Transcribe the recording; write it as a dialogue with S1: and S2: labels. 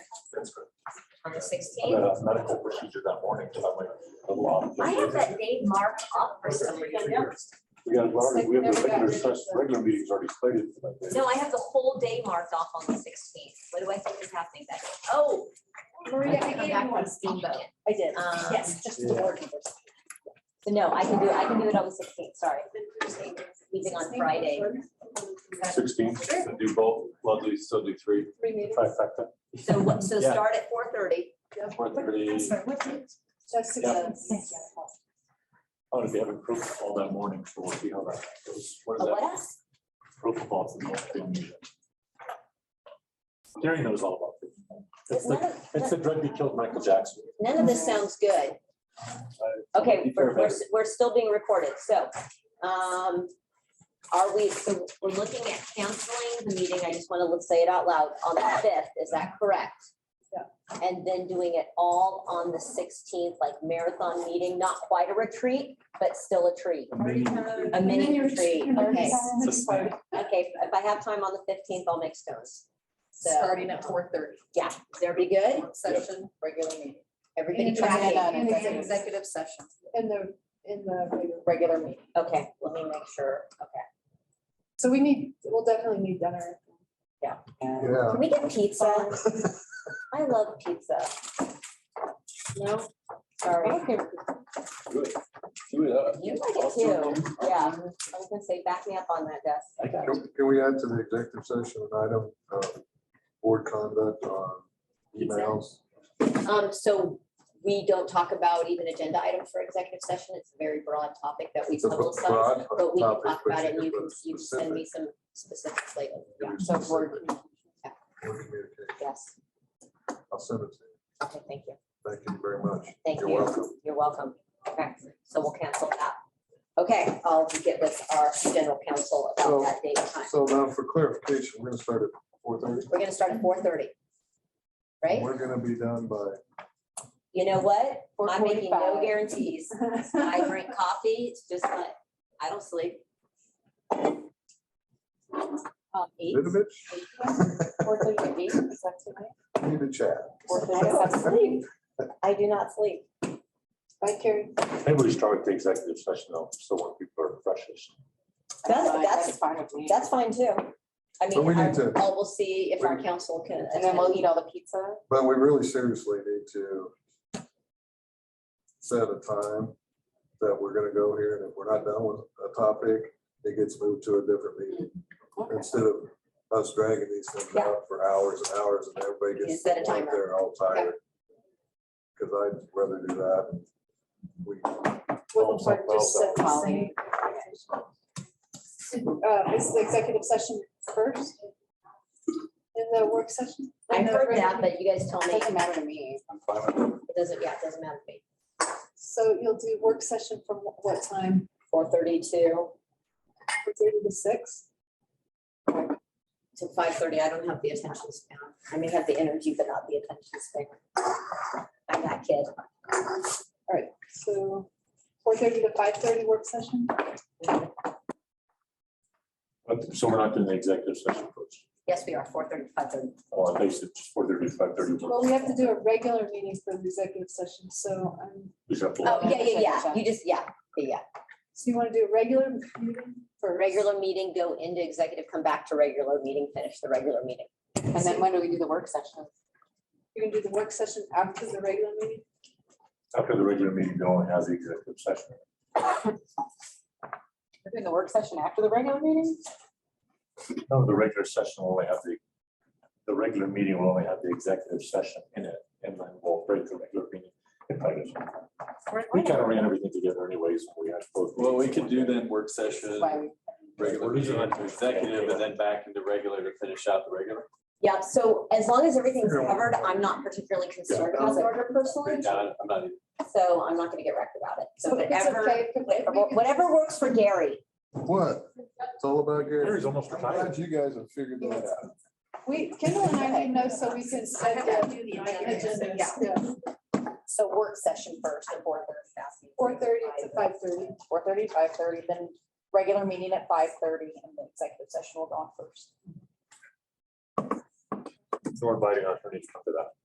S1: on the
S2: had
S1: sixteenth.
S2: a medical procedure that morning, so "Oh, I went. along.
S1: I have that date marked up for some reason.
S2: We got, already- we have the
S3: Never got
S2: regular,
S3: rid of
S2: session- regular meetings already slated for that day.
S1: No, I have the whole day marked off on the sixteenth. What do I think is happening that day? Oh,
S3: Maria, I
S1: come
S3: gave
S1: back
S3: you
S1: from
S3: one.
S1: steamboat.
S4: I did,
S1: Um,
S4: yes, just the
S2: Yeah.
S4: board members. So no, I can do, I can do it on the sixteenth, sorry.
S1: Meeting on Friday.
S2: Sixteen, to do both, lovely, so do three,
S3: Three meetings.
S2: trifecta,
S1: So what, so
S2: Yeah.
S1: start at four thirty.
S2: four thirty.
S3: Just to
S2: Yeah.
S3: go.
S2: I'm gonna be having propofol that morning, so we'll see how that goes. What is
S1: But what
S2: that?
S1: else?
S2: Propofol. Gary knows all about it. It's
S4: None
S2: the,
S4: of-
S2: it's the drug that killed Michael Jackson.
S4: None of this sounds good. Okay, we're, we're, s- we're still being recorded, so, um, are we, so
S1: We're looking at canceling
S4: the meeting, I just wanna let's say it out loud, on the fifth, is that correct?
S3: Yeah.
S4: And then doing it all on the sixteenth, like marathon meeting, not quite a retreat, but still a treat. A mini retreat, okay. Okay, if I have time on the fifteenth, I'll make stones. So,
S5: Starting at four thirty.
S4: yeah, there be good,
S5: Session, regular meeting.
S4: everybody
S5: And
S4: tracking.
S3: tracking.
S5: Executive session,
S3: In the, in the, regular-
S5: regular meeting.
S4: Okay, let me make sure, okay.
S3: so we need, we'll definitely need dinner.
S4: Can we get pizza? I love pizza. No, sorry. You like it too, yeah, I was gonna say, back me up on that desk.
S6: Can can we add to the executive session an item, uh, board conduct on emails?
S4: Um, so we don't talk about even agenda items for executive session. It's a very broad topic that we
S6: It's a b-
S4: publicize.
S6: broad
S4: But we can
S6: topic,
S4: talk
S6: but
S4: about
S6: you
S4: it and
S6: can
S4: you
S6: put
S4: can, you can send me some specifics later.
S6: Give
S4: Yeah,
S6: me
S4: so
S6: specific
S4: board,
S6: communication.
S4: yes.
S6: I'll send it to you.
S4: Okay, thank you.
S6: Thank you very much.
S4: Thank
S6: You're
S4: you.
S6: welcome.
S4: You're welcome. Okay, so we'll cancel that. Okay, I'll get with our general counsel about
S6: So-
S4: that date and time.
S6: So now for clarification, we're gonna start at four thirty.
S4: We're gonna start at four thirty. Right?
S6: We're gonna be done by,
S4: You know what? I'm making no
S3: 4:45.
S4: guarantees. I drink coffee, it's just like, I don't sleep.
S3: Um, eight.
S6: Vidovich,
S3: Four thirty, eight, is that tonight?
S6: need to chat.
S3: Four
S4: I don't sleep. I do not sleep.
S3: Bye, Carrie.
S2: Maybe we start with the executive session though, so when people are freshest.
S4: That's, that's,
S5: fine with me.
S4: that's fine too. I
S6: But we
S4: mean,
S6: need
S4: I
S6: to-
S4: I will see if our council can.
S5: And then we'll
S4: attend.
S5: eat all the pizza.
S6: But we really seriously need to set a time that we're gonna go here, and if we're not done with a topic, it gets moved to a different meeting. Instead of us dragging these things out for hours and hours, and everybody
S4: You
S6: gets
S4: set a
S6: out
S4: timer.
S6: there all tired. Because I'd rather do that. and We,
S3: Wouldn't work, just set the
S5: Well,
S3: same. Uh, is the executive session first? In the work session?
S4: I've
S3: In the
S4: heard that,
S3: regular-
S4: but you guys tell me,
S5: Doesn't matter to me.
S2: I'm fine with
S4: it doesn't, yeah, it doesn't matter to me.
S3: So you'll do work session from wh- what time?
S4: Four thirty-two
S3: From Thirty to six?
S4: to five thirty, I don't have the attention span. I may have the energy, but not the attention span. I'm that kid.
S3: All right, so four thirty to five thirty work session?
S2: it. So we're not doing the executive session first,
S4: Yes, we are, four thirty, five thirty.
S2: or at least it's four thirty, five thirty.
S3: Well, we have to do a regular meeting for the executive session, so, um,
S2: We just have to-
S4: Oh, yeah, yeah, yeah. You just, yeah, yeah, yeah.
S3: so you want to do a regular meeting
S4: For
S3: for
S4: a regular meeting, go into executive, come back to regular meeting, finish the regular meeting.
S5: And then when do we do the work session?
S3: You're gonna do the work session after the regular meeting?
S2: After the regular meeting, they only has the executive session.
S5: We're doing the work session after the regular meeting?
S2: No, the regular session will only have the, the regular meeting will only have the executive session in it, and then we'll break the regular meeting. It probably doesn't matter. We kind of ran everything together anyways, when we had both.
S7: Well, we could do then work session,
S5: Why we-
S7: regular,
S2: These are-
S7: executive, and then back into regular to finish out the regular.
S4: Yeah, so as long as everything's covered, I'm not particularly concerned about the order personally,
S7: Yeah, I'm not even-
S4: so I'm not gonna get wrecked about it. So
S3: If it's
S4: whatever,
S3: okay, if- if we
S4: whatever-
S3: could-
S4: whatever works for Gary.
S6: what? It's all about Gary.
S2: Gary's almost
S6: I'm
S2: retired.
S6: glad you guys have figured that out.
S3: We, Kendall and I need to know so we can set the agendas, yeah,
S5: So work session first at four thirty.
S3: four thirty to five thirty.
S5: Four thirty, five thirty, then regular meeting at five thirty and the executive session will go on first.
S2: So we're inviting our attorney to come to that.